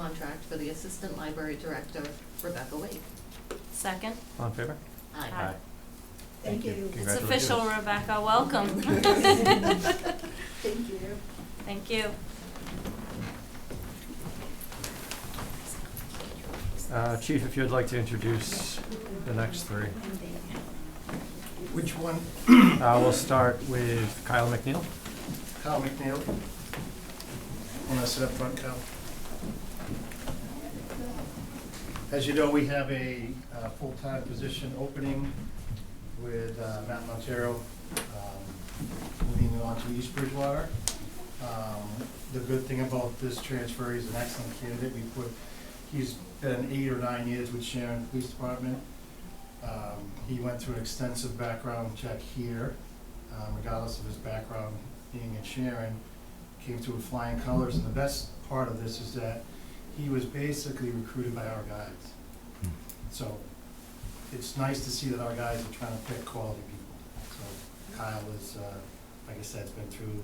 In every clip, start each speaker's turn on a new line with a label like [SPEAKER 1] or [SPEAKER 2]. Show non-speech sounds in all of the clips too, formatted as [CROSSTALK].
[SPEAKER 1] contract for the Assistant Library Director, Rebecca Wake.
[SPEAKER 2] Second.
[SPEAKER 3] All in favor?
[SPEAKER 1] Aye.
[SPEAKER 2] Aye.
[SPEAKER 4] Thank you. It's
[SPEAKER 2] It's
[SPEAKER 3] Congratulations.
[SPEAKER 2] official, Rebecca,
[SPEAKER 5] [LAUGHS]
[SPEAKER 2] welcome.
[SPEAKER 4] Thank you.
[SPEAKER 2] Thank you.
[SPEAKER 3] Uh, Chief, if you'd like to introduce the next
[SPEAKER 4] [CLEARS THROAT]
[SPEAKER 3] three.
[SPEAKER 6] Which one?
[SPEAKER 3] Uh, We'll start with Kyle McNeil.
[SPEAKER 6] Kyle McNeil. Want to sit up front, Kyle? As you know, we have a uh, full-time position opening with uh, Matt Montero, um, moving on to East Bridgewater. Um, The good thing about this transfer, he's an excellent candidate. We put, he's been eight or nine years with Sharon Police Department. Um, He went through an extensive background check here, um, regardless of his background being in Sharon, came through with flying colors. And the best part of this is that he was basically recruited by our guys. So it's nice to see that our guys are trying to pick quality people. So Kyle is, uh, like I said, has been through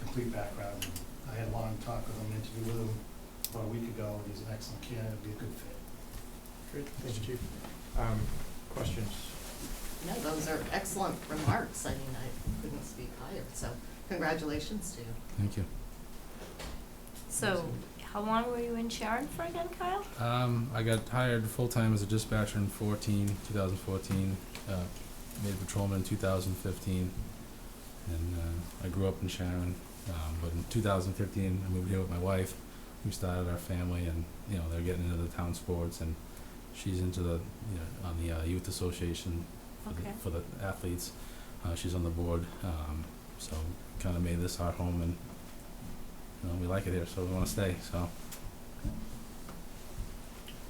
[SPEAKER 6] complete background. I had a long talk with him, interview with him about a week ago. He's an excellent candidate, be a good fit.
[SPEAKER 7] Great, thanks, Chief. Um, Questions?
[SPEAKER 1] No, those are excellent remarks. I mean, I couldn't speak higher, so congratulations to you.
[SPEAKER 5] Thank you.
[SPEAKER 2] So, how long were you in Sharon for again, Kyle?
[SPEAKER 5] Um, I got hired full-time as a dispatcher in 14, 2014, uh, made a patrolman in 2015, and uh, I grew up in Sharon. Um, but in 2015, I moved here with my wife. We started our family, and you know they're getting into the town sports, and she's into the you know, on the uh, youth association for,
[SPEAKER 2] Okay.
[SPEAKER 5] the, for the athletes. Uh, she's on the board, um, so kind of made this our home, and you know, we like it here, so we want to stay. So.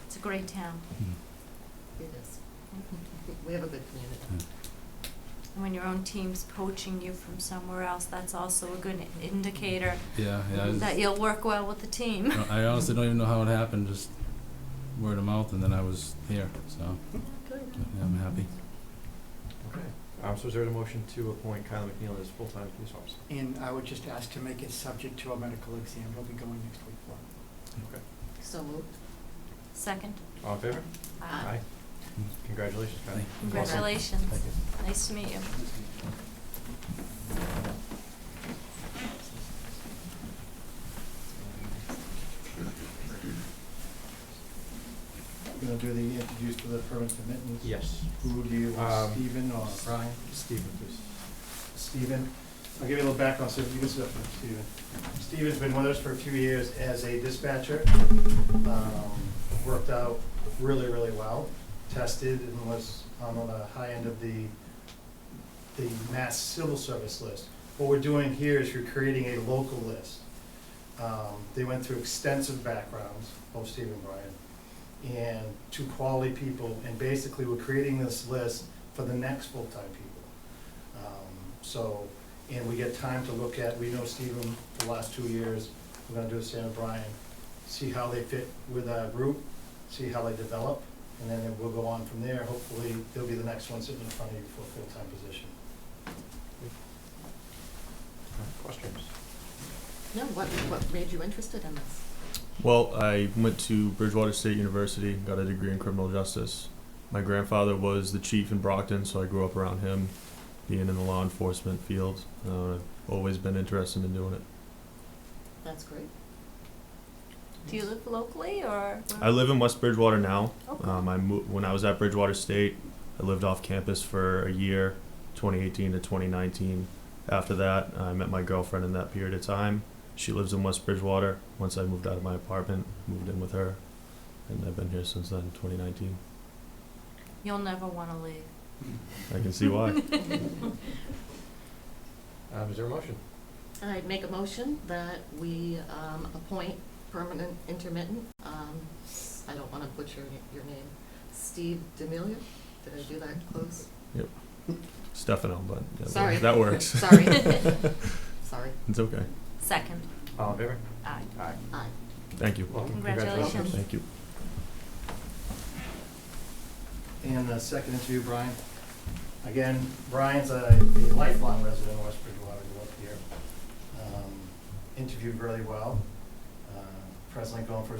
[SPEAKER 2] It's a great town. Mm-hmm.
[SPEAKER 1] It is. We have a good
[SPEAKER 3] Hmm.
[SPEAKER 1] community.
[SPEAKER 2] And When your own team's poaching you from somewhere else, that's also a good indicator
[SPEAKER 5] Yeah, yeah. I was-
[SPEAKER 2] that you'll work well with the team.
[SPEAKER 5] No, I honestly don't even know how it happened. Just word of mouth, and then I was here. So
[SPEAKER 2] Good.
[SPEAKER 5] yeah, I'm happy.
[SPEAKER 3] Okay. Um, So is there a motion to appoint Kyle McNeil as full-time police officer?
[SPEAKER 7] And I would just ask to make it subject to a medical exam. He'll be going next week for it.
[SPEAKER 1] So moved. Uh,
[SPEAKER 2] Second.
[SPEAKER 3] All in favor?
[SPEAKER 1] Aye.
[SPEAKER 3] Congratulations, Kyle.
[SPEAKER 5] Thank
[SPEAKER 2] Congratulations.
[SPEAKER 3] Thank you.
[SPEAKER 2] Nice to meet you.
[SPEAKER 6] We're Gonna do the interviews for the permanent commitments?
[SPEAKER 3] Yes.
[SPEAKER 6] Who do you want,
[SPEAKER 3] Um,
[SPEAKER 6] Stephen
[SPEAKER 7] Uh,
[SPEAKER 6] or Brian?
[SPEAKER 3] Stephen, please.
[SPEAKER 6] Stephen, I'll give you a little background, so you can sit up with Stephen. Stephen's been with us for a few years as a dispatcher. Um, Worked out really, really well, tested and was on the high end of the, the mass civil service list. What we're doing here is you're creating a local list. Um, They went through extensive backgrounds, both Stephen and Brian, and two quality people, and basically we're creating this list for the next full-time people. Um, So, and we get time to look at, we know Stephen for the last two years, we're gonna do the same with Brian, see how they fit with our group, see how they develop, and then we'll go on from there. Hopefully, they'll be the next one sitting in front of you for a full-time position.
[SPEAKER 3] Uh, Questions?
[SPEAKER 1] No, what, what made you interested in this?
[SPEAKER 8] Well, I went to Bridgewater State University, got a degree in criminal justice. My grandfather was the chief in Brockton, so I grew up around him, being in the law enforcement field. Uh, I've always been interested in doing it.
[SPEAKER 1] That's great.
[SPEAKER 2] Do you live locally or?
[SPEAKER 8] I live in West Bridgewater now.
[SPEAKER 2] Okay.
[SPEAKER 8] Um, I mo- when I was at Bridgewater State, I lived off campus for a year, 2018 to 2019. After that, I met my girlfriend in that period of time. She lives in West Bridgewater. Once I moved out of my apartment, moved in with her, and I've been here since then, 2019.
[SPEAKER 2] You'll never want to leave.
[SPEAKER 8] I can see why.
[SPEAKER 3] Um, Is there a motion?
[SPEAKER 1] I'd make a motion that we um, appoint permanent intermittent, um, s- I don't want to butcher your- your name, Steve D'Amelio? Did I do that close?
[SPEAKER 8] Stefano, but yeah, that-
[SPEAKER 1] Sorry.
[SPEAKER 8] that works.
[SPEAKER 1] Sorry, sorry.
[SPEAKER 8] it's okay.
[SPEAKER 2] Second.
[SPEAKER 3] All in favor?
[SPEAKER 2] Aye.
[SPEAKER 3] Aye.
[SPEAKER 1] Aye.
[SPEAKER 8] Thank you.
[SPEAKER 3] Welcome.
[SPEAKER 2] Congratulations.
[SPEAKER 8] Thank you.
[SPEAKER 6] And the second interview, Brian. Again, Brian's a a lifelong resident of West Bridgewater, grew up here. Um, Interviewed really well. Uh, Presently going for his